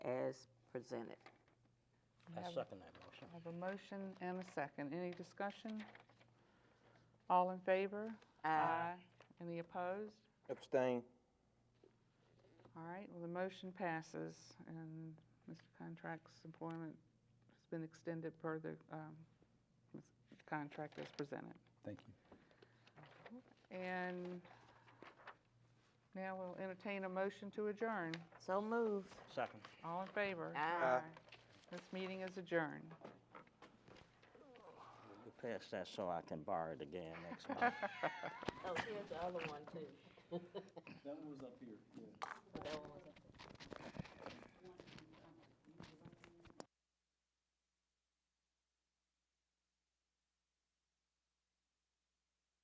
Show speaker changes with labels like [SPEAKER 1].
[SPEAKER 1] as presented.
[SPEAKER 2] I second that motion.
[SPEAKER 3] I have a motion and a second. Any discussion? All in favor? Ah. Any opposed?
[SPEAKER 4] Abstain.
[SPEAKER 3] All right, well, the motion passes, and Mr. Contract's employment has been extended per the um, this contract as presented.
[SPEAKER 5] Thank you.
[SPEAKER 3] And now we'll entertain a motion to adjourn.
[SPEAKER 1] So moved.
[SPEAKER 2] Second.
[SPEAKER 3] All in favor?
[SPEAKER 1] Aye.
[SPEAKER 3] This meeting is adjourned.
[SPEAKER 2] You pass that so I can borrow it again next month.
[SPEAKER 1] Oh, here's the other one too.
[SPEAKER 5] That one was up here, yeah.
[SPEAKER 1] That one was up there.